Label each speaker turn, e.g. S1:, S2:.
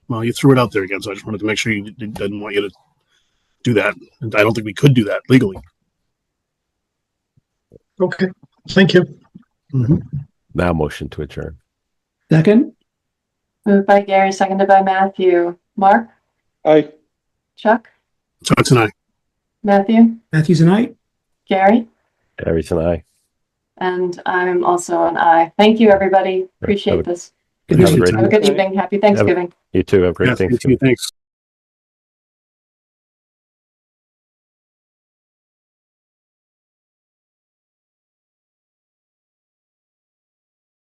S1: Well, you threw it out there again, so I just wanted to make sure you d- didn't want you to do that. And I don't think we could do that legally.
S2: Okay, thank you.
S3: Now motion to adjourn.
S4: Second?
S5: Moved by Gary, seconded by Matthew. Mark,
S6: Aye.
S5: Chuck,
S1: So it's an aye.
S5: Matthew,
S4: Matthews and I?
S5: Gary,
S3: Everything aye.
S5: and I'm also an I. Thank you, everybody. Appreciate this.
S3: Have a
S1: night.
S3: great,
S5: Have a good evening. Happy Thanksgiving.
S3: you too. Have a
S1: Yeah,
S3: great
S1: thank
S3: Thanksgiving.
S1: you. Thanks.